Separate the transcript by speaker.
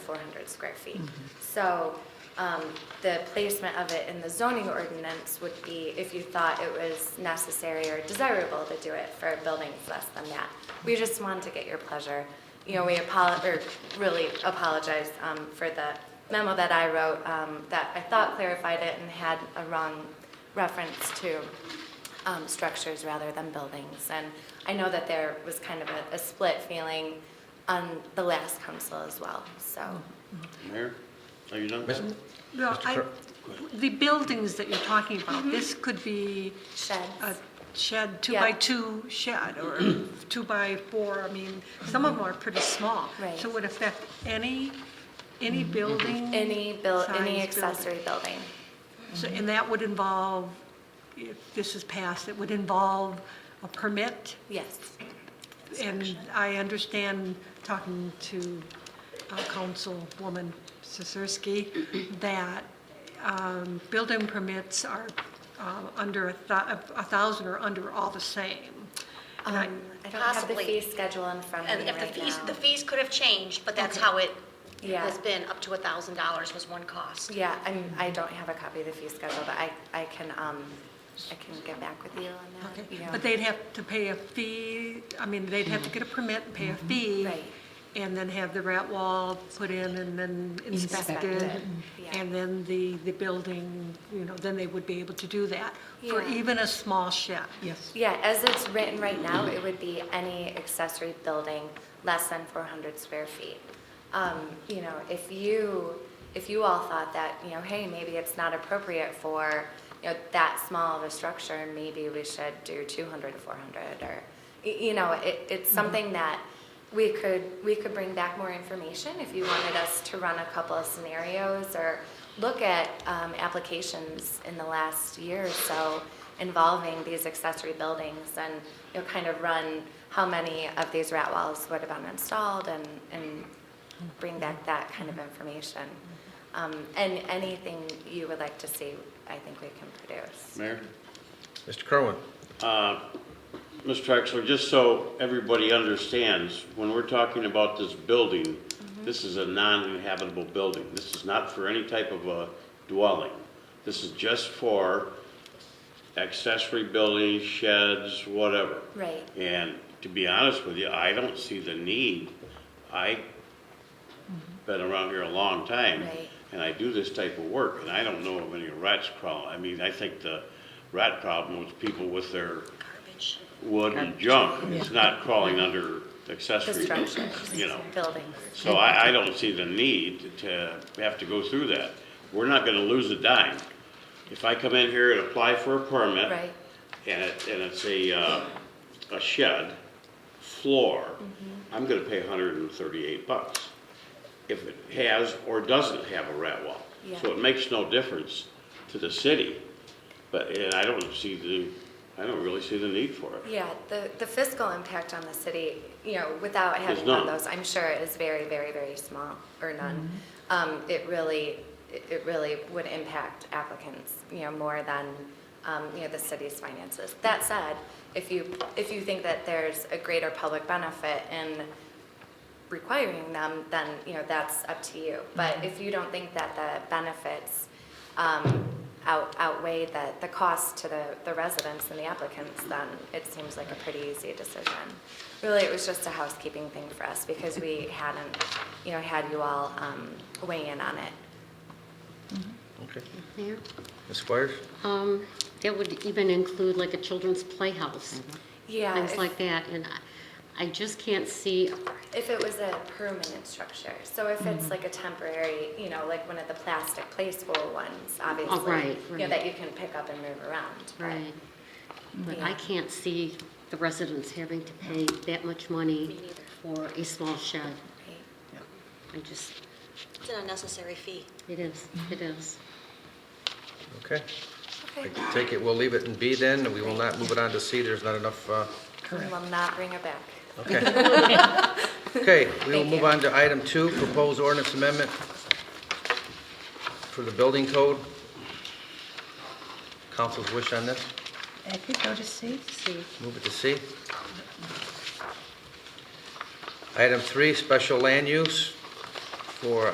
Speaker 1: 400 square feet. So um, the placement of it in the zoning ordinance would be if you thought it was necessary or desirable to do it for buildings less than that. We just wanted to get your pleasure. You know, we apologize, or really apologize um, for the memo that I wrote um, that I thought clarified it and had a wrong reference to um, structures rather than buildings. And I know that there was kind of a, a split feeling on the last council as well, so.
Speaker 2: Mayor, are you done?
Speaker 3: Miss-
Speaker 4: Well,
Speaker 3: Mr.
Speaker 4: I,
Speaker 3: Cur-
Speaker 4: the buildings that you're talking about,
Speaker 1: Mm-hmm.
Speaker 4: this could be a Uh,
Speaker 1: Sheds,
Speaker 4: shed, two
Speaker 1: Yeah.
Speaker 4: by two shed, or two by four, I mean, some of them are pretty small.
Speaker 1: Mm-hmm. Right.
Speaker 4: So it would affect any, any building?
Speaker 1: any build, any
Speaker 4: size building.
Speaker 1: accessory Mm-hmm. building.
Speaker 4: So- And that would involve, if this is passed, it would involve a permit?
Speaker 1: Yes,
Speaker 4: And I understand, talking to uh, Councilwoman Sisersky, that um, building permits are um, under a thou- a thousand or under all the same. And I-
Speaker 1: um, I don't have the
Speaker 5: Possibly.
Speaker 1: fee schedule in front of
Speaker 5: And
Speaker 1: me
Speaker 5: if the
Speaker 1: right
Speaker 5: fees, the
Speaker 1: now.
Speaker 5: fees could have changed, but that's how it
Speaker 1: Yeah.
Speaker 5: has been, up to a thousand dollars was one cost.
Speaker 1: Yeah, I'm, I don't have a copy of the fee schedule, but I, I can, um, I can get back with you on
Speaker 4: okay.
Speaker 1: that. Yeah.
Speaker 4: But they'd have to pay a fee, I mean, they'd have to get a permit and pay a fee.
Speaker 1: Mm-hmm. Right.
Speaker 4: And then have the rat wall put in and then
Speaker 1: Inspected,
Speaker 4: inspected.
Speaker 1: yeah.
Speaker 4: And then the, the building, you know, then they would be able to do that for
Speaker 1: Yeah.
Speaker 4: even a small shed. Yes.
Speaker 1: Yeah, as it's written right now, it would be any accessory building less than 400 square feet. Um, You know, if you, if you all thought that, you know, hey, maybe it's not appropriate for, you know, that small of a structure, maybe we should do 200 to 400, or, y- you know, it, it's something that we could, we could bring back more information if you wanted us to run a couple of scenarios or look at um, applications in the last year or so involving these accessory buildings and, you know, kind of run how many of these rat walls would have been installed and, and bring back that kind of information. Um, And anything you would like to see, I think we can produce.
Speaker 2: Mayor?
Speaker 3: Mr. Kerwin?
Speaker 2: Ms. Traxler, just so everybody understands, when we're talking about this building, this is a non-inhabitable building. This is not for any type of a dwelling. This is just for accessory buildings, sheds, whatever.
Speaker 1: Right.
Speaker 2: And to be honest with you, I don't see the need. I've been around here a long time.
Speaker 1: Right.
Speaker 2: And I do this type of work, and I don't know of any rats crawling. I mean, I think the rat problem was people with their
Speaker 5: Garbage.
Speaker 2: wood and junk. It's not crawling under
Speaker 1: The
Speaker 2: accessory,
Speaker 1: structures,
Speaker 2: you know.
Speaker 1: buildings.
Speaker 2: So I, I don't see the need to have to go through that. We're not gonna lose a dime. If I come in here and apply for a permit.
Speaker 1: Right.
Speaker 2: And it, and it's a, uh, a shed floor, I'm gonna pay hundred and thirty-eight bucks. If it has or doesn't have a rat wall.
Speaker 1: Yeah.
Speaker 2: So it makes no difference to the city, but, and I don't see the, I don't really see the need for it.
Speaker 1: Yeah, the, the fiscal impact on the city, you know, without having
Speaker 2: none.
Speaker 1: done those, I'm sure is very, very, very small, or none. Um, it really, it it really would impact applicants, you know, more than, um, you know, the city's finances. That said, if you, if you think that there's a greater public benefit in requiring them, then, you know, that's up to you.
Speaker 6: Mm-hmm.
Speaker 1: But if you don't think that the benefits um, out- outweigh the, the cost to the, the residents and the applicants, then it seems like a pretty easy decision. Really, it was just a housekeeping thing for us because we hadn't, you know, had you all um, weigh in on it.
Speaker 3: Okay.
Speaker 6: Mayor,
Speaker 3: Ms. Squires?
Speaker 6: um, that would even include like a children's playhouse,
Speaker 1: Yeah.
Speaker 6: things
Speaker 1: if-
Speaker 6: like that, and I- I just can't see,
Speaker 1: If it was a permanent structure, so if
Speaker 6: Mm-hmm.
Speaker 1: it's like a temporary, you know, like one of the plastic play school ones, obviously.
Speaker 6: Oh, right,
Speaker 1: You know,
Speaker 6: right.
Speaker 1: that you can pick up and move around. but-
Speaker 6: right, but
Speaker 1: Yeah.
Speaker 6: I can't see the residents having to pay that much money for a small shed.
Speaker 1: Right.
Speaker 6: I just,
Speaker 5: It's an unnecessary fee.
Speaker 6: it is, it is.
Speaker 3: Okay. I
Speaker 1: Okay.
Speaker 3: take it, we'll leave it in B then, and we will not move it on to C, there's not enough, uh,
Speaker 1: We will not bring her back.
Speaker 3: okay. Okay, we will
Speaker 1: Thank
Speaker 3: move
Speaker 1: you.
Speaker 3: on to item two, proposed ordinance amendment for the building code. Council's wish on this?
Speaker 7: I could go to C.
Speaker 6: See,
Speaker 3: Move it to C. Item three, special land use for